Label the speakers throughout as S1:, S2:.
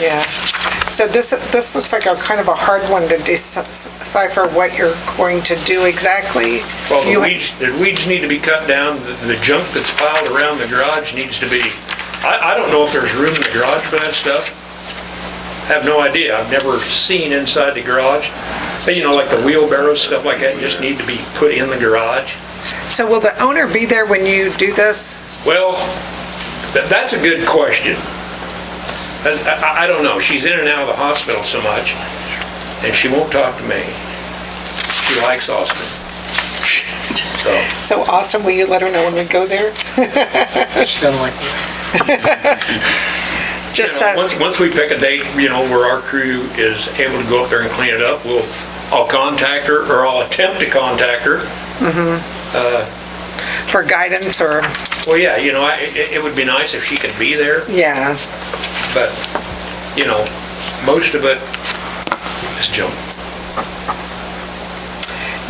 S1: Yeah. So this, this looks like a kind of a hard one to decipher what you're going to do exactly.
S2: Well, the
S1: You-
S2: weeds, the weeds need to be cut down, the- the junk that's piled around the garage needs to be, I, I don't know if there's room in the garage for that stuff. Have no idea, I've never seen inside the garage, but you know, like the wheelbarrows, stuff like that, just need to be put in the garage.
S1: So will the owner be there when you do this?
S2: Well, tha- that's a good question. I- I, I don't know, she's in and out of the hospital so much, and she won't talk to me. She likes Austin. So,
S1: So Austin, will you let her know when we go there?
S3: She doesn't like me.
S1: Just,
S2: You know,
S1: uh,
S2: Once, once we pick a date, you know, where our crew is able to go up there and clean it up, we'll, I'll contact her, or I'll attempt to contact her.
S1: for guidance or,
S2: Well, yeah, you know, I, it, it would be nice if she could be there,
S1: yeah,
S2: but, you know, most of it is junk.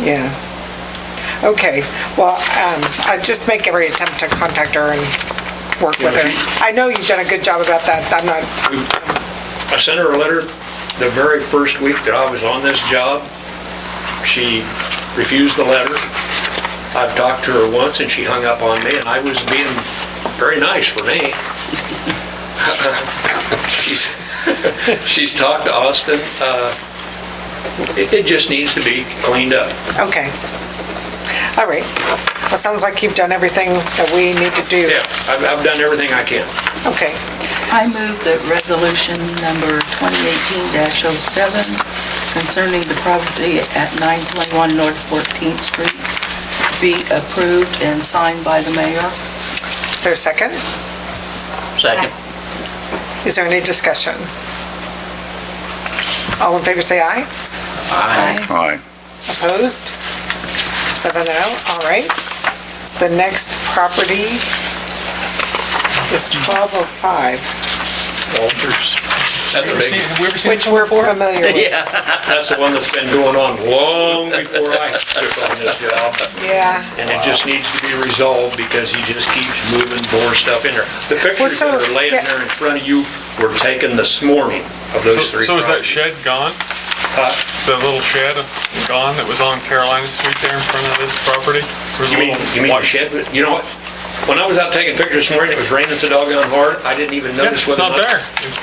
S1: yeah. Okay, well, um, I just make every attempt to contact her and work with her. I know you've done a good job about that. I'm not,
S2: I sent her a letter the very first week that I was on this job. She refused the letter. I've talked to her once and she hung up on me and I was being very nice for me. She's- She's talked to Austin. uh, It, it just needs to be cleaned up.
S1: okay. All right. Well, sounds like you've done everything that we need to do.
S2: Yeah, I've, I've done everything I can.
S1: Okay,
S4: I move that resolution number 2018-07 concerning the property at 921 North 14th Street be approved and signed by the mayor.
S1: is there a second?
S5: Second.
S1: Is there any discussion? All in favor, say aye.
S4: Aye.
S5: Aye.
S1: Opposed? Seven oh, all right. The next property is 1205,
S3: Walters.
S2: That's a big,
S3: Have we ever seen
S1: which we're familiar with.
S2: that's the one that's been going on long before I took on this job.
S1: Yeah,
S2: And it just needs to be resolved because he just keeps moving more stuff in there. The pictures that
S1: so-
S2: are laying
S1: yeah.
S2: there in front of you were taken this morning of those
S6: So
S2: three
S6: so is that
S2: properties.
S6: shed gone? The little shed gone that was on Carolina Street there in front of this property? There's a
S2: You mean,
S6: little
S2: you mean the
S6: white-
S2: shed, but you know what? When I was out taking pictures this morning, it was raining so doggone hard, I didn't even
S6: Yeah,
S2: notice
S6: It's
S2: whether or
S6: not
S2: not.
S6: there.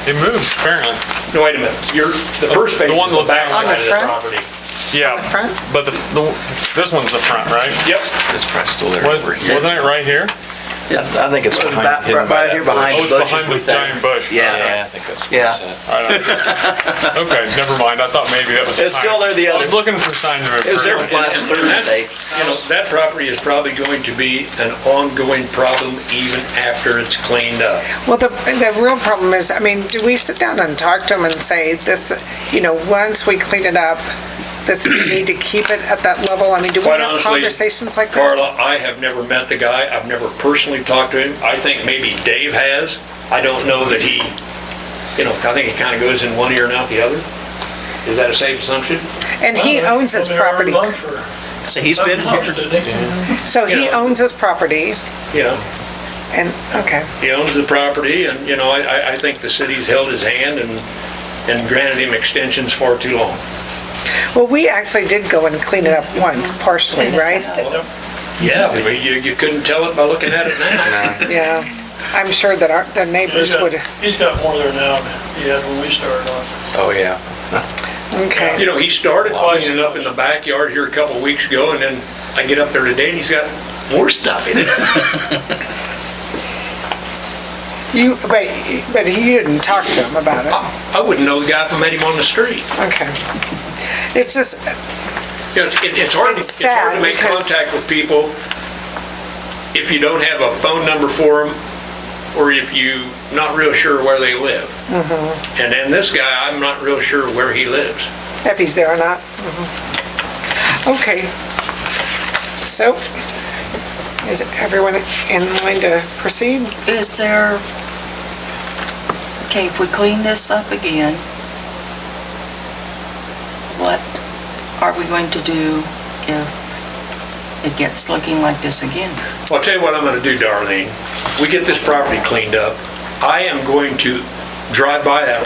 S6: It it moved apparently.
S2: No, wait a minute, you're, the first
S6: The
S2: page is
S6: one
S2: the
S6: that's
S2: back
S1: on the
S2: side of the
S1: front?
S2: property.
S6: Yeah.
S1: front?
S6: But the, the- this one's the front, right?
S2: Yep,
S7: It's probably still there
S6: Was,
S7: over here.
S6: wasn't it right here?
S7: Yeah, I think it's behind,
S8: Back-
S7: hidden by
S8: right
S7: that
S8: here behind
S6: Oh,
S7: bush.
S6: it's
S8: the bushes
S6: behind
S8: with
S6: the
S8: that.
S6: giant bush.
S8: Yeah,
S7: Yeah, I think that's
S8: Yeah.
S7: what it's at.
S6: Okay, never mind. I thought maybe that was. a
S8: It's
S6: sign.
S8: still there the
S6: I was
S8: other-
S6: looking for signs of
S8: it was there
S6: improvement.
S8: last
S2: and- and that-
S8: Thursday.
S2: you know, that property is probably going to be an ongoing problem even after it's cleaned up.
S1: well, the, the real problem is, I mean, do we sit down and talk to them and say, this, you know, once we clean it up, this, we need to keep it at that level? I mean, do we
S2: Quite
S1: have
S2: honestly,
S1: conversations like that?
S2: Carla, I have never met the guy. I've never personally talked to him. I think maybe Dave has. I don't know that he, you know, I think it kind of goes in one ear and out the other. Is that a safe assumption?
S1: And he owns his property.
S8: So he's been here.
S1: So he
S2: Yeah.
S1: owns his property
S2: Yeah,
S1: and, okay,
S2: he owns the property and, you know, I- I, I think the city's held his hand and, and granted him extensions far too long.
S1: well, we actually did go and clean it up once partially, right?
S2: Yeah, but you, you couldn't tell it by looking at it now.
S1: Yeah, I'm sure that our, the neighbors would,
S9: He's got more there now than he had when we started on.
S7: Oh, yeah.
S1: okay,
S2: You know, he started cleaning up in the backyard here a couple of weeks ago and then I get up there today and he's got more stuff in it.
S1: you, but, but he didn't talk to him about it,
S2: I wouldn't know the guy if I met him on the street.
S1: okay. It's just,
S2: You know, It's, it's hard, to-
S1: It's
S2: it's hard
S1: sad
S2: to make
S1: because-
S2: contact with people if you don't have a phone number for them, or if you not real sure where they live.
S1: Mm-hmm.
S2: And then this guy, I'm not real sure where he lives.
S1: if he's there or not. Mhm. Okay, so, is everyone in line to proceed?
S4: Is there, okay, if we clean this up again, what are we going to do if it gets looking like this again?
S2: Well, I'll tell you what I'm gonna do, Darlene. We get this property cleaned up. I am going to drive by that